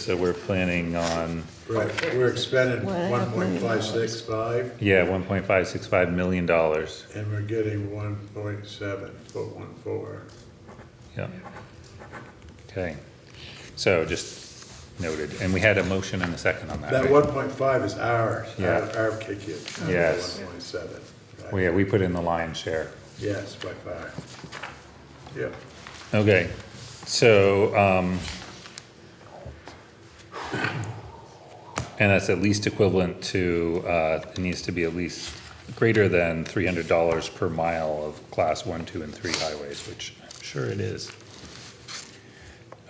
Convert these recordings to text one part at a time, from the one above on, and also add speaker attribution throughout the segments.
Speaker 1: So we're planning on,
Speaker 2: Right, we're expending
Speaker 3: Well, I have
Speaker 2: one point five six
Speaker 3: million
Speaker 2: five,
Speaker 1: yeah, one point five six five million dollars.
Speaker 2: and we're getting one point seven, point one four.
Speaker 1: Yeah. Okay. So just noted. And we had a motion and a second on that.
Speaker 2: That
Speaker 1: right?
Speaker 2: one point five is ours, our,
Speaker 1: Yeah.
Speaker 2: our kick in. not the
Speaker 1: Yes.
Speaker 2: One point seven,
Speaker 1: Well,
Speaker 2: right,
Speaker 1: yeah, we put in the lion's share.
Speaker 2: yes, by far. Yep,
Speaker 1: Okay, so, um, and that's at least equivalent to, uh, it needs to be at least greater than three hundred dollars per mile of class one, two, and three highways, which I'm sure it is.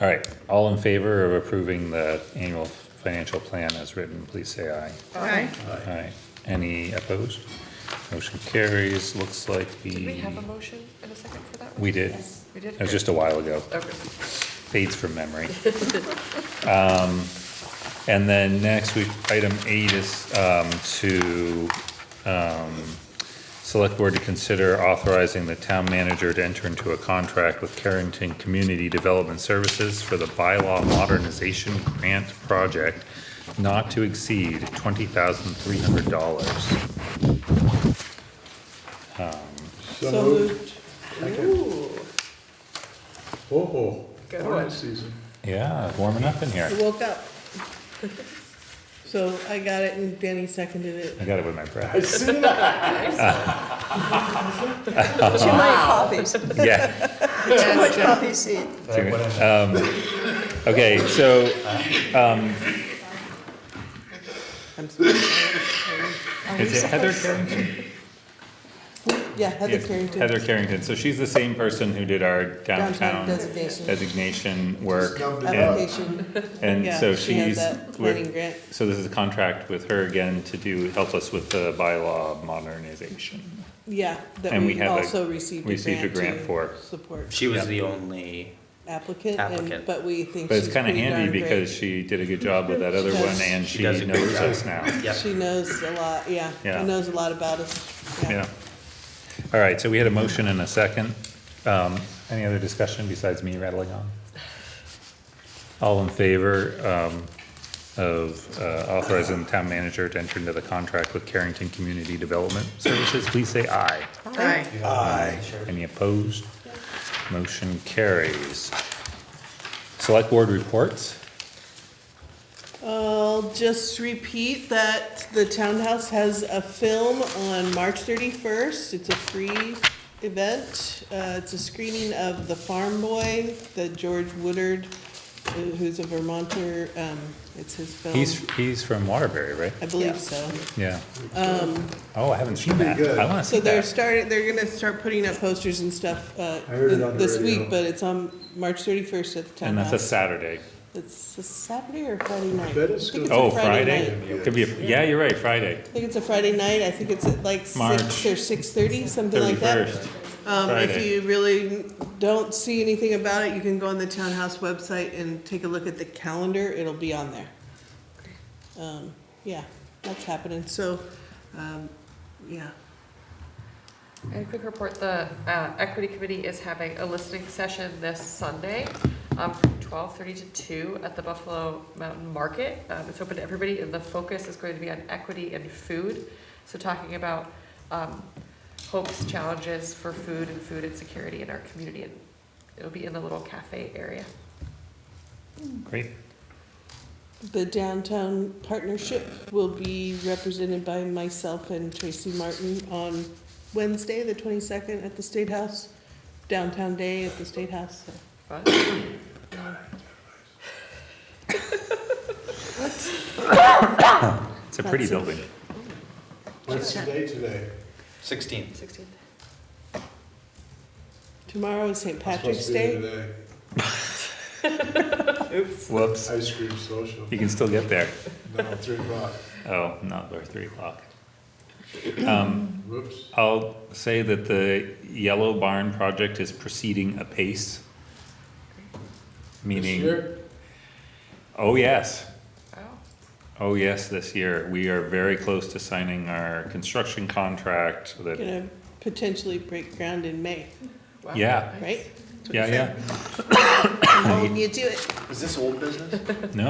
Speaker 1: All right, all in favor of approving the annual financial plan as written, please say aye.
Speaker 3: Aye.
Speaker 2: aye.
Speaker 1: Aye. Any opposed? Motion carries, looks like the.
Speaker 4: Did we have a motion in a second for that one?
Speaker 1: We did.
Speaker 4: We did?
Speaker 1: It was just a while ago.
Speaker 4: Okay.
Speaker 1: fades from memory. Um, And then next, we, item eight is um, to, um, select board to consider authorizing the town manager to enter into a contract with Carrington Community Development Services for the bylaw modernization grant project not to exceed twenty thousand three hundred dollars.
Speaker 2: So moved.
Speaker 3: Ooh,
Speaker 2: Oh,
Speaker 4: Good
Speaker 2: all right,
Speaker 4: one.
Speaker 2: Susan.
Speaker 1: Yeah, warming up in here.
Speaker 3: I woke up. So I got it and Danny seconded it.
Speaker 1: I got it with my breath.
Speaker 2: I see that.
Speaker 5: Too many copies, too
Speaker 1: Yeah.
Speaker 5: much copy seed.
Speaker 1: Um, Okay, so, um,
Speaker 3: I'm sorry.
Speaker 1: is it Heather Carrington?
Speaker 3: Yeah, Heather
Speaker 1: Yes,
Speaker 3: Carrington.
Speaker 1: Heather Carrington, so she's the same person who did our downtown
Speaker 3: Downtown designation.
Speaker 1: designation work.
Speaker 2: dumped it
Speaker 1: and-
Speaker 3: Application,
Speaker 1: And
Speaker 3: yeah,
Speaker 1: so
Speaker 3: she had
Speaker 1: she's,
Speaker 3: that planning
Speaker 1: we're-
Speaker 3: grant.
Speaker 1: so this is a contract with her again to do, help us with the bylaw modernization.
Speaker 3: Yeah, that
Speaker 1: And we
Speaker 3: we
Speaker 1: have a-
Speaker 3: also received a grant
Speaker 1: received a grant
Speaker 3: to
Speaker 1: for.
Speaker 3: Support
Speaker 6: She was the only,
Speaker 3: applicant, and,
Speaker 6: Applicant.
Speaker 3: but we think
Speaker 1: But it's
Speaker 3: she's
Speaker 1: kinda
Speaker 3: pretty darn
Speaker 1: handy because
Speaker 3: great.
Speaker 1: she did a good job with that other
Speaker 3: She
Speaker 1: one
Speaker 3: does.
Speaker 1: and
Speaker 6: She
Speaker 1: she
Speaker 6: does a good
Speaker 1: knows
Speaker 6: job.
Speaker 1: us now.
Speaker 6: yep.
Speaker 3: She knows a lot, yeah,
Speaker 1: Yeah.
Speaker 3: she knows a lot about us, yeah.
Speaker 1: Yeah. All right, so we had a motion and a second. Um, any other discussion besides me rattling on? All in favor, um, of uh, authorizing the town manager to enter into the contract with Carrington Community Development Services, please say aye.
Speaker 5: Aye.
Speaker 2: Aye.
Speaker 1: Any opposed? Motion carries. Select board reports?
Speaker 3: I'll just repeat that the townhouse has a film on March thirty-first. It's a free event. Uh, it's a screening of The Farm Boy, the George Woodard, uh, who's a Vermonter, um, it's his film.
Speaker 1: He's, he's from Waterbury, right?
Speaker 3: I believe so.
Speaker 1: Yeah. Oh, I haven't seen
Speaker 2: be
Speaker 1: that.
Speaker 2: good.
Speaker 1: I wanna see
Speaker 3: Um, So they're
Speaker 1: that.
Speaker 3: starting, they're gonna start putting up posters and stuff, uh,
Speaker 2: I heard it on the
Speaker 3: this
Speaker 2: radio.
Speaker 3: week, but it's on March thirty-first at the
Speaker 1: And that's
Speaker 3: townhouse.
Speaker 1: a Saturday.
Speaker 3: It's a Saturday or Friday night?
Speaker 2: bet it's
Speaker 3: I think
Speaker 2: gonna
Speaker 3: a
Speaker 1: Oh,
Speaker 3: night.
Speaker 1: Friday?
Speaker 2: night.
Speaker 1: Could be, a- yeah, you're right, Friday,
Speaker 3: I think it's a Friday night, I think it's at like
Speaker 1: March
Speaker 3: six or six thirty, something like that.
Speaker 1: thirty-first.
Speaker 3: Um, if
Speaker 1: Friday.
Speaker 3: you really don't see anything about it, you can go on the townhouse website and take a look at the calendar, it'll be on there. Um, yeah, that's happening, so, um, yeah,
Speaker 4: And a quick report, the uh, Equity Committee is having a listening session this Sunday um, from 12:30 to 2 at the Buffalo Mountain Market. Um, It's open to everybody, and the focus is going to be on equity and food. So talking about um, hopes, challenges for food and food insecurity in our community. And It'll be in the little cafe area.
Speaker 1: Great.
Speaker 3: the downtown partnership will be represented by myself and Tracy Martin on Wednesday, the twenty-second, at the State House, downtown day at the State House, so.
Speaker 4: Fun.
Speaker 1: It's a pretty
Speaker 3: That's it.
Speaker 1: building.
Speaker 2: What's the date today?
Speaker 6: Sixteenth.
Speaker 4: 16th.
Speaker 3: Tomorrow is St. Patrick's
Speaker 2: Supposed to be
Speaker 3: Day.
Speaker 2: today.
Speaker 1: Whoops.
Speaker 2: Ice cream social,
Speaker 1: You can still get there.
Speaker 2: no, three o'clock,
Speaker 1: Oh, not by three o'clock. Um,
Speaker 2: whoops.
Speaker 1: I'll say that the Yellow Barn project is proceeding apace.
Speaker 2: This
Speaker 1: Meaning,
Speaker 2: year?
Speaker 1: oh yes,
Speaker 4: Wow.
Speaker 1: oh yes, this year. We are very close to signing our construction contract that,
Speaker 3: Gonna potentially break ground in May,
Speaker 4: Wow.
Speaker 1: Yeah.
Speaker 3: right?
Speaker 1: yeah, yeah.
Speaker 3: How will you do it?
Speaker 6: Is this old business?
Speaker 1: No,